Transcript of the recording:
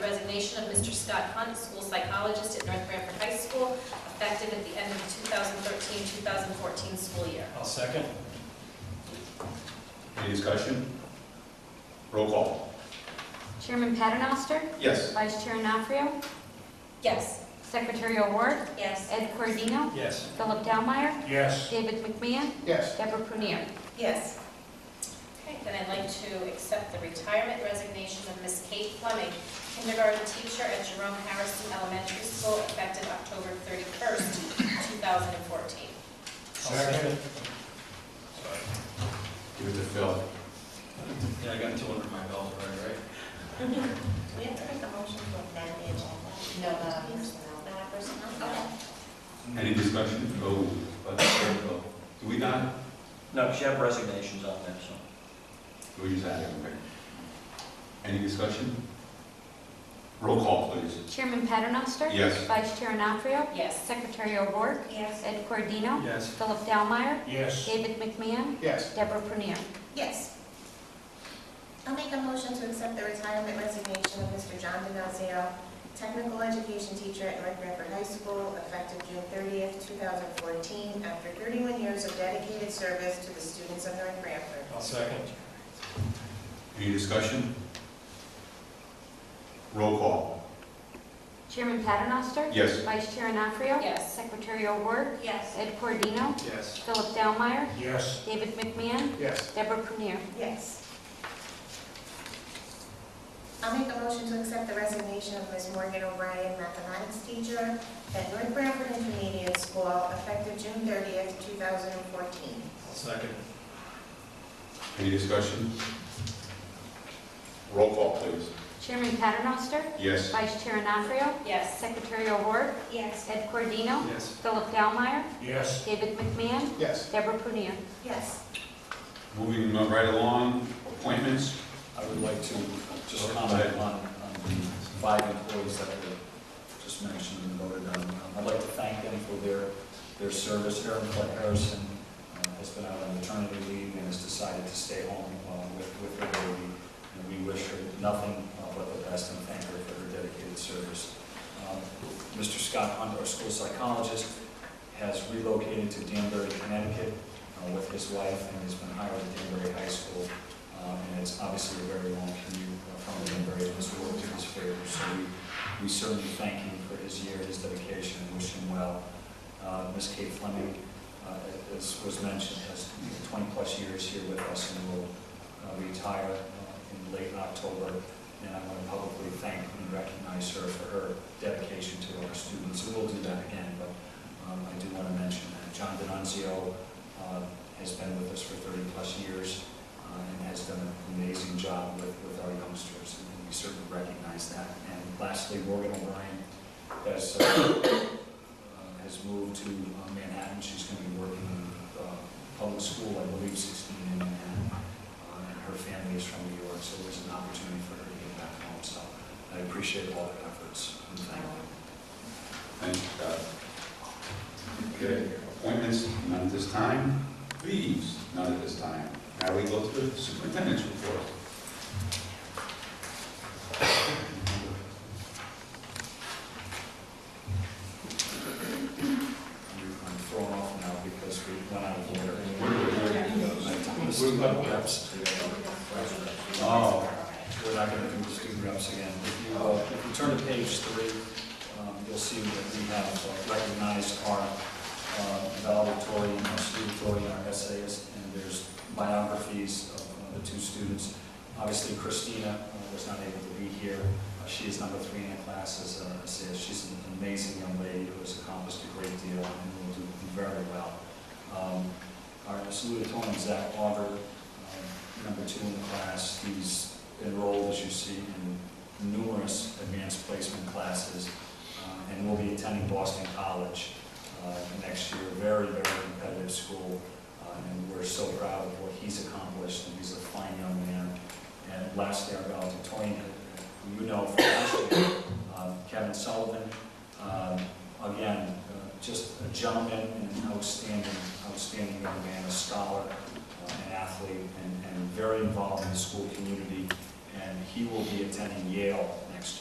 resignation of Mr. Scott Hunt, school psychologist at North Branford High School, effective at the end of 2013-2014 school year. I'll second. Any discussion? Roll call. Chairman Paternoster, Yes. Vice Chair Nafrio, Yes. Secretary O'Rourke, Yes. Ed Cordino, Yes. Philip Delmeyer, Yes. David McMahon, yes, Deborah Prunier. Yes. Okay, then I'd like to accept the retirement resignation of Miss Kate Fleming, kindergarten teacher at Jerome Harrison Elementary School, effective October 31st, 2014. I'll second. Give it to Phil. Yeah, I got two under my belt already, right? We have to make a motion to amend the agenda. No, uh, personnel. Not personnel? Any discussion? Oh, but, oh, do we not? No, she had resignations on there, so. We just added, okay. Any discussion? Roll call, please. Chairman Paternoster. Yes. Vice Chair Nafrio, Yes. Secretary O'Rourke, Yes. Ed Cordino, Yes. Philip Delmeyer, Yes. David McMahon, yes, Deborah Prunier. Yes. I'll make a motion to accept the retirement resignation of Mr. John DiNazio, technical education teacher at North Branford High School, effective June 30th, 2014, after 31 years of dedicated service to the students of North Branford. I'll second. Any discussion? Roll call. Chairman Paternoster. Yes. Vice Chair Nafrio, Yes. Secretary O'Rourke, Yes. Ed Cordino, Yes. Philip Delmeyer, Yes. David McMahon, yes, Deborah Prunier. Yes. I'll make a motion to accept the resignation of Ms. Morgan O'Brien, mathematics teacher at North Branford Intermediate School, effective June 30th, 2014. I'll second. Any discussion? Roll call, please. Chairman Paternoster. Yes. Vice Chair Nafrio, Yes. Secretary O'Rourke, Yes. Ed Cordino, Yes. Philip Delmeyer, Yes. David McMahon, yes. Deborah Prunier. Yes. Moving right along, appointments. I would like to just comment on, on the five employees that were just mentioned and voted on. Um, I'd like to thank them for their, their service. Erin Fle- Harrison uh, has been out on maternity leave and has decided to stay home uh, with, with her baby. And we wish her nothing uh, but the best and thank her for her dedicated service. Um, Mr. Scott Hunt, our school psychologist, has relocated to Danbury, Connecticut uh, with his wife and has been hired at Danbury High School um, and it's obviously a very long commute uh, from Danbury, and this will work in his favor. So we, we certainly thank him for his year, his dedication, and wish him well. Uh, Ms. Kate Fleming, uh, as was mentioned, has 20-plus years here with us and will uh, retire uh, in late October. And I want to publicly thank and recognize her for her dedication to our students. And we'll do that again, but um, I do want to mention that John Denunzio uh, has been with us for 30-plus years uh, and has done an amazing job with, with our youngsters, and we certainly recognize that. And lastly, Morgan O'Brien has, uh, uh, has moved to uh, Manhattan. She's going to be working in uh, public school, I believe, 16 in Manhattan, Uh, and her family is from New York, so there's an opportunity for her to get back home. So I appreciate all their efforts, and thank them. Thank you, Scott. uh, Okay, appointments, none at this time. Leaves, none at this time. Now we go to the superintendent's report. I'm thrown off now because we went out of order. Oh. We're not going to do the student reps again. If you, uh, if you turn to page three, um, you'll see that we have uh, recognized our uh, valedictorian, our salutatorian, our essayist, and there's biographies of uh, the two students. Obviously Christina uh, was not able to be here. Uh, She is number three in her class as an essayist. She's an amazing young lady who has accomplished a great deal and will do very well. Um, Our salutatorian, Zach Auger, um, number two in the class. He's enrolled, as you see, in numerous advanced placement classes, uh, and will be attending Boston College uh, next year, very, very competitive school, uh, and we're so proud of what he's accomplished, and he's a fine young man. And lastly, our valedictorian, who you know from last year, uh, Kevin Sullivan, um, again, uh, just a gentleman and an outstanding, outstanding young man, a scholar, uh, an athlete, and- and very involved in the school community, and he will be attending Yale